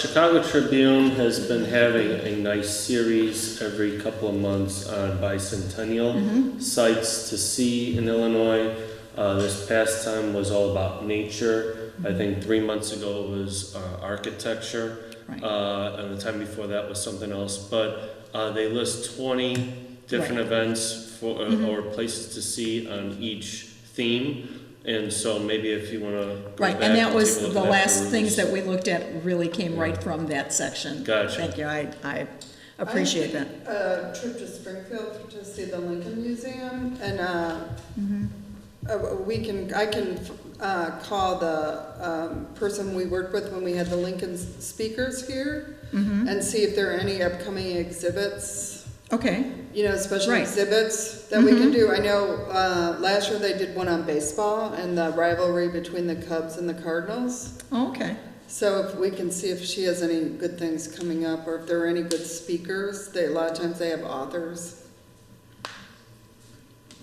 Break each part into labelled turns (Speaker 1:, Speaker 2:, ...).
Speaker 1: Chicago Tribune has been having a nice series every couple of months on bicentennial
Speaker 2: Mm-hmm.
Speaker 1: sites to see in Illinois. Uh, this past time was all about nature. I
Speaker 2: Mm-hmm.
Speaker 1: think three months ago was uh, architecture,
Speaker 2: Right.
Speaker 1: uh, and the time before that was something else. But uh, they list 20 different events for, uh,
Speaker 2: Mm-hmm.
Speaker 1: or places to see on each theme. And so maybe if you want to
Speaker 2: Right, and that was the last things that we looked at really came right from that section.
Speaker 1: Gotcha.
Speaker 2: Thank you, I, I appreciate that.
Speaker 3: A trip to Springfield to see the Lincoln Museum and, uh,
Speaker 2: Mm-hmm.
Speaker 3: uh, we can, I can, uh, call the, um, person we worked with when we had the Lincoln speakers here
Speaker 2: Mm-hmm.
Speaker 3: and see if there are any upcoming exhibits,
Speaker 2: Okay,
Speaker 3: you know, special
Speaker 2: Right. Mm-hmm.
Speaker 3: exhibits that we can do. I know, uh, last year they did one on baseball and the rivalry between the Cubs and the Cardinals.
Speaker 2: Oh, okay,
Speaker 3: So if we can see if she has any good things coming up, or if there are any good speakers, they, a lot of times they have authors.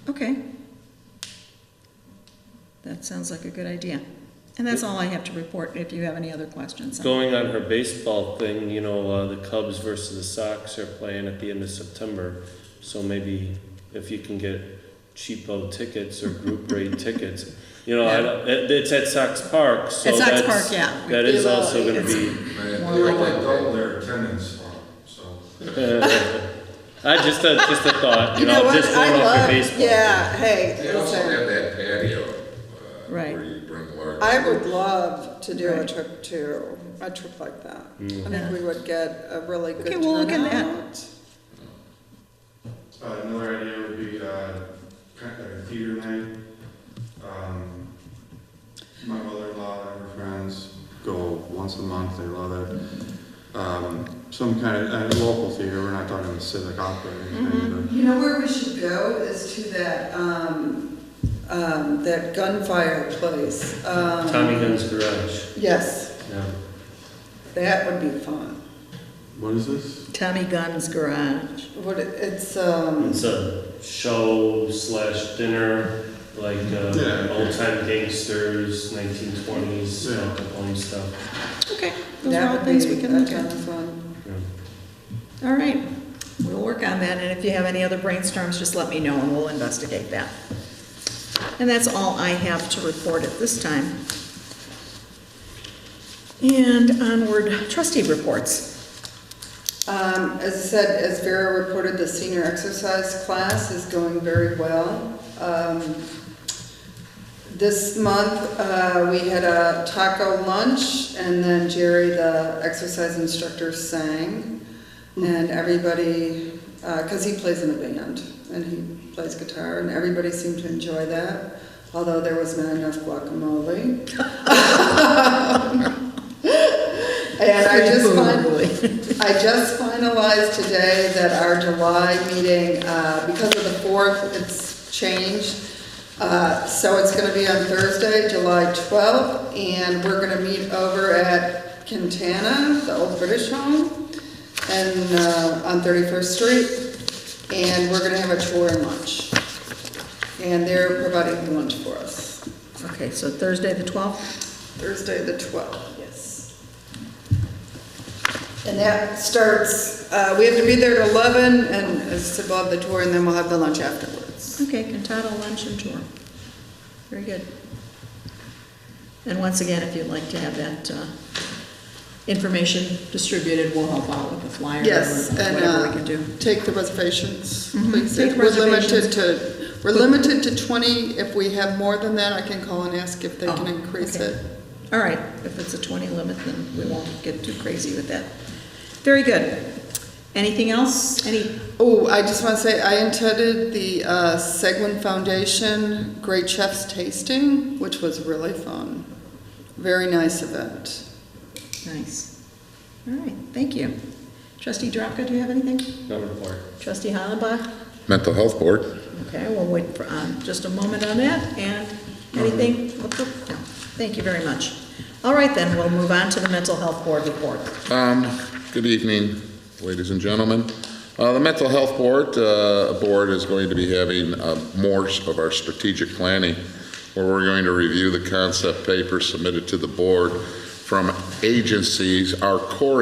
Speaker 2: okay. That sounds like a good idea. And that's all I have to report, if you have any other questions.
Speaker 1: Going on her baseball thing, you know, uh, the Cubs versus the Sox are playing at the end of September. So maybe if you can get cheapo tickets or group rate tickets, you know, I don't, it, it's at Sox Park, so
Speaker 2: At Sox
Speaker 1: that's,
Speaker 2: Park, yeah.
Speaker 1: that is also going to
Speaker 3: It's-
Speaker 1: be.
Speaker 4: They
Speaker 2: More
Speaker 4: they
Speaker 2: like-
Speaker 4: only double their attendance, so.
Speaker 1: I just a, just a thought, you,
Speaker 3: You know what?
Speaker 1: just going
Speaker 3: I
Speaker 1: off your
Speaker 3: love-
Speaker 1: baseball.
Speaker 3: Yeah, hey,
Speaker 4: They also
Speaker 3: listen,
Speaker 4: have that patio, uh,
Speaker 2: Right.
Speaker 4: where you bring large.
Speaker 3: I would love to do a
Speaker 2: Right.
Speaker 3: trip to, a trip like that.
Speaker 1: Mm.
Speaker 2: Yeah.
Speaker 3: I think we would get a really good
Speaker 2: Okay, we'll look at that.
Speaker 3: turnout.
Speaker 5: Uh, another idea would be, uh, kind of like a theater night. Um, my mother-in-law and her friends go once a month, they love it. Um, some kind of, uh, local theater, we're not talking the civic opera or
Speaker 4: Mm-hmm.
Speaker 5: anything,
Speaker 3: You know where we should go is to that, um, um, that gunfire place. um,
Speaker 1: Tommy Gunn's Garage.
Speaker 3: Yes,
Speaker 1: Yeah.
Speaker 3: that would be fun.
Speaker 5: but, what is this?
Speaker 2: Tommy Gunn's Garage.
Speaker 3: What, it- it's, um.
Speaker 1: It's a show slash dinner, like uh,
Speaker 5: Yeah.
Speaker 1: old time gangsters, 1920s,
Speaker 5: Yeah.
Speaker 1: Al Capone stuff.
Speaker 2: Okay, those
Speaker 3: That
Speaker 2: are all
Speaker 3: would
Speaker 2: things
Speaker 3: be-
Speaker 2: we can look
Speaker 3: that
Speaker 2: at.
Speaker 3: sounds fun.
Speaker 1: Yeah.
Speaker 2: All right, we'll work on that, and if you have any other brainstorms, just let me know and we'll investigate that. And that's all I have to report at this time. And onward, trustee reports.
Speaker 3: Um, as I said, as Vera reported, the senior exercise class is going very well. Um, this month, uh, we had a taco lunch and then Jerry, the exercise instructor, sang. And everybody, uh 'cause cause he plays in a band and he plays guitar and everybody seemed to enjoy that, although there was not enough guacamole. And I just fin- I just finalized today that our July meeting, uh, because of the fourth, it's changed. Uh, so it's gonna be on Thursday, July twelfth, and we're gonna meet over at Quintana, the old British home, and, uh, on Thirty-first Street, and we're gonna have a tour and lunch. And they're providing lunch for us,
Speaker 2: Okay, so Thursday, the 12th?
Speaker 3: Thursday, the twelfth, yes. And that starts, uh, we have to be there at 11, and it's above the tour, and then we'll have the lunch afterwards.
Speaker 2: Okay, Cantata Lunch and Tour. Very good. And once again, if you'd like to have that uh, information distributed, we'll help out with the flyer or
Speaker 3: Yes, and
Speaker 2: whatever we can do.
Speaker 3: uh, take the reservations,
Speaker 2: Mhm,
Speaker 3: please.
Speaker 2: take
Speaker 3: We're limited
Speaker 2: reservations.
Speaker 3: to, we're limited to 20. If we have more than that, I can call and ask if they
Speaker 2: Oh,
Speaker 3: can increase
Speaker 2: okay.
Speaker 3: it.
Speaker 2: All right, if it's a 20 limit, then we won't get too crazy with that. Very good. Anything else? Any,
Speaker 3: Oh, I just want to say, I attended the uh, Seguin Foundation Great Chefs Tasting, which was really fun. Very nice event.
Speaker 2: nice. All right, thank you. Trustee Drapka, do you have anything?
Speaker 1: No report.
Speaker 2: Trustee Hollenbach?
Speaker 6: Mental Health Board.
Speaker 2: Okay, we'll wait for, um, just a moment on that, and anything? What's up? No. Thank you very much. All right, then, we'll move on to the mental health board report.
Speaker 6: Um, Good evening, ladies and gentlemen. Uh, The Mental Health Board, uh, Board is going to be having uh, more of our strategic planning, where we're going to review the concept paper submitted to the board from agencies, our core